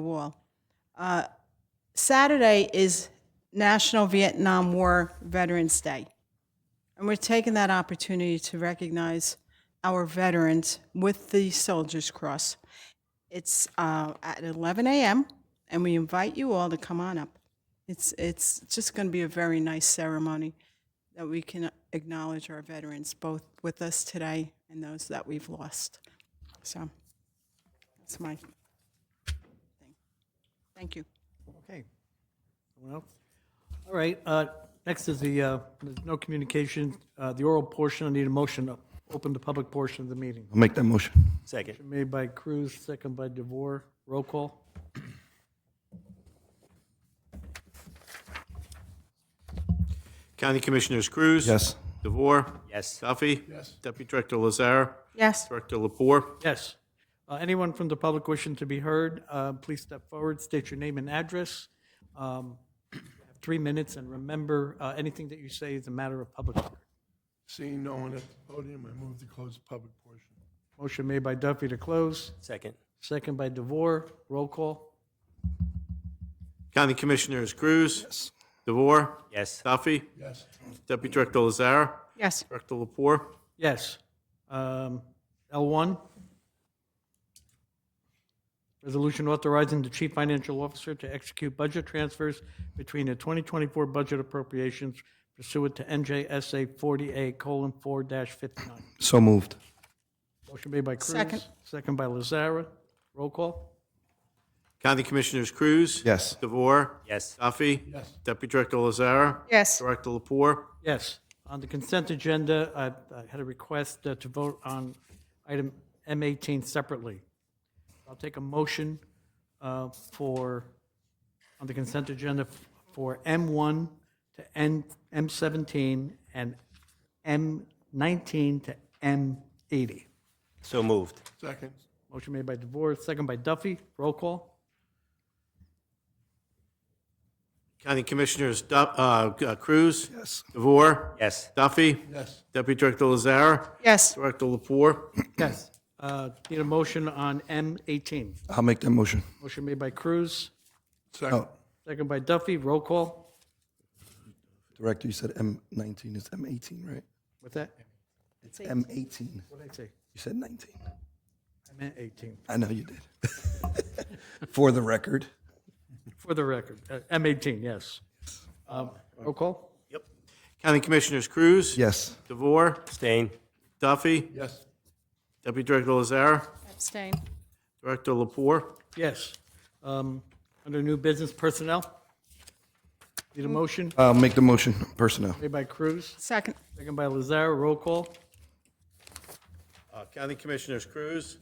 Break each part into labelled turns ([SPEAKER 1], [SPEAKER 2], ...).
[SPEAKER 1] the wall. Uh, Saturday is National Vietnam War Veterans Day. And we're taking that opportunity to recognize our veterans with the Soldiers Cross. It's uh, at 11 a.m., and we invite you all to come on up. It's, it's just going to be a very nice ceremony that we can acknowledge our veterans, both with us today and those that we've lost. So that's my thing. Thank you.
[SPEAKER 2] Okay. Someone else? All right, uh, next is the, uh, there's no communication, uh, the oral portion, I need a motion to open the public portion of the meeting.
[SPEAKER 3] I'll make that motion.
[SPEAKER 4] Second.
[SPEAKER 2] Made by Cruz, second by DeVore, roll call.
[SPEAKER 5] County Commissioners Cruz.
[SPEAKER 3] Yes.
[SPEAKER 5] DeVore.
[SPEAKER 4] Yes.
[SPEAKER 5] Duffy. Yes. Deputy Director Lazar.
[SPEAKER 1] Yes.
[SPEAKER 5] Director Lapore.
[SPEAKER 2] Yes. Uh, Anyone from the public wishing to be heard, uh, please step forward, state your name and address. Um, you have Three minutes, and remember, uh, anything that you say is a matter of public record.
[SPEAKER 6] Seeing no one at the podium, I move to close the public portion.
[SPEAKER 2] Motion made by Duffy to close,
[SPEAKER 4] Second.
[SPEAKER 2] second by DeVore, roll call.
[SPEAKER 5] County Commissioners Cruz. DeVore.
[SPEAKER 4] Yes.
[SPEAKER 5] Duffy.
[SPEAKER 6] Yes.
[SPEAKER 5] Deputy Director Lazar.
[SPEAKER 1] Yes.
[SPEAKER 5] Director Lapore.
[SPEAKER 2] Yes. Um, L1. Resolution authorizing the chief financial officer to execute budget transfers between the 2024 budget appropriations pursuant to NJSA 40A:4-59.
[SPEAKER 3] So moved.
[SPEAKER 2] Motion made by Cruz.
[SPEAKER 1] Second.
[SPEAKER 2] Second by Lazara. Roll call?
[SPEAKER 5] County Commissioners Cruz.
[SPEAKER 3] Yes.
[SPEAKER 5] DeVore.
[SPEAKER 4] Yes.
[SPEAKER 5] Duffy.
[SPEAKER 6] Yes.
[SPEAKER 5] Deputy Director Lazar.
[SPEAKER 1] Yes.
[SPEAKER 5] Director Lapore.
[SPEAKER 2] Yes. On the consent agenda, I I had a request uh, to vote on item M18 separately. I'll take a motion uh, for, on the consent agenda, for M1 to N- M17 and M19 to M80.
[SPEAKER 4] So moved.
[SPEAKER 6] Second.
[SPEAKER 2] Motion made by DeVore, second by Duffy. Roll call?
[SPEAKER 5] County Commissioners Du- uh, uh, Cruz. Yes. DeVore.
[SPEAKER 4] Yes.
[SPEAKER 5] Duffy.
[SPEAKER 6] Yes.
[SPEAKER 5] Deputy Director Lazar.
[SPEAKER 1] Yes.
[SPEAKER 5] Director Lapore.
[SPEAKER 2] Yes. Uh, Need a motion on M18.
[SPEAKER 3] I'll make that motion.
[SPEAKER 2] Motion made by Cruz,
[SPEAKER 6] Second.
[SPEAKER 2] second by Duffy. Roll call?
[SPEAKER 3] Director, you said M19 is M18, right?
[SPEAKER 2] What's that?
[SPEAKER 3] It's M18. You
[SPEAKER 2] What did I say?
[SPEAKER 3] said 19.
[SPEAKER 2] I meant 18.
[SPEAKER 3] I know you did. For the record.
[SPEAKER 2] For the record, uh, M18, yes. Um, Roll call?
[SPEAKER 5] County Commissioners Cruz.
[SPEAKER 3] Yes.
[SPEAKER 5] DeVore.
[SPEAKER 4] Abstain.
[SPEAKER 5] Duffy.
[SPEAKER 6] Yes.
[SPEAKER 5] Deputy Director Lazar.
[SPEAKER 1] Abstain.
[SPEAKER 5] Director Lapore.
[SPEAKER 2] Yes. Um, Under new business personnel? Need a motion?
[SPEAKER 3] I'll make the motion. Personnel.
[SPEAKER 2] Made by Cruz,
[SPEAKER 1] Second.
[SPEAKER 2] second by Lazara, roll call?
[SPEAKER 5] Uh, County Commissioners Cruz.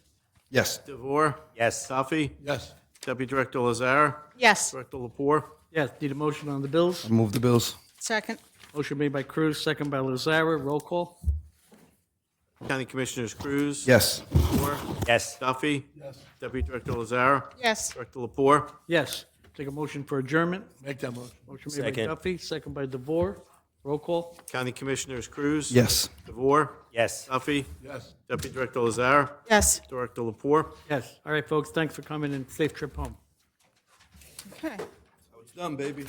[SPEAKER 3] Yes.
[SPEAKER 5] DeVore.
[SPEAKER 4] Yes.
[SPEAKER 5] Duffy.
[SPEAKER 6] Yes.
[SPEAKER 5] Deputy Director Lazar.
[SPEAKER 1] Yes.
[SPEAKER 5] Director Lapore.
[SPEAKER 2] Yes, need a motion on the bills?
[SPEAKER 3] Move the bills.
[SPEAKER 1] Second.
[SPEAKER 2] Motion made by Cruz, second by Lazara, roll call?
[SPEAKER 5] County Commissioners Cruz.
[SPEAKER 3] Yes.
[SPEAKER 5] DeVore.
[SPEAKER 4] Yes.
[SPEAKER 5] Duffy.
[SPEAKER 6] Yes.
[SPEAKER 5] Deputy Director Lazar.
[SPEAKER 1] Yes.
[SPEAKER 5] Director Lapore.
[SPEAKER 2] Yes. Take a motion for adjournment?
[SPEAKER 6] Make that motion.
[SPEAKER 2] Motion made by
[SPEAKER 4] Second.
[SPEAKER 2] Duffy, second by DeVore, roll call?
[SPEAKER 5] County Commissioners Cruz.
[SPEAKER 3] Yes.
[SPEAKER 5] DeVore.
[SPEAKER 4] Yes.
[SPEAKER 5] Duffy.
[SPEAKER 6] Yes.
[SPEAKER 5] Deputy Director Lazar.
[SPEAKER 1] Yes.
[SPEAKER 5] Director Lapore.
[SPEAKER 2] Yes. All right, folks, thanks for coming and safe trip home.
[SPEAKER 1] Okay.
[SPEAKER 3] Done, baby.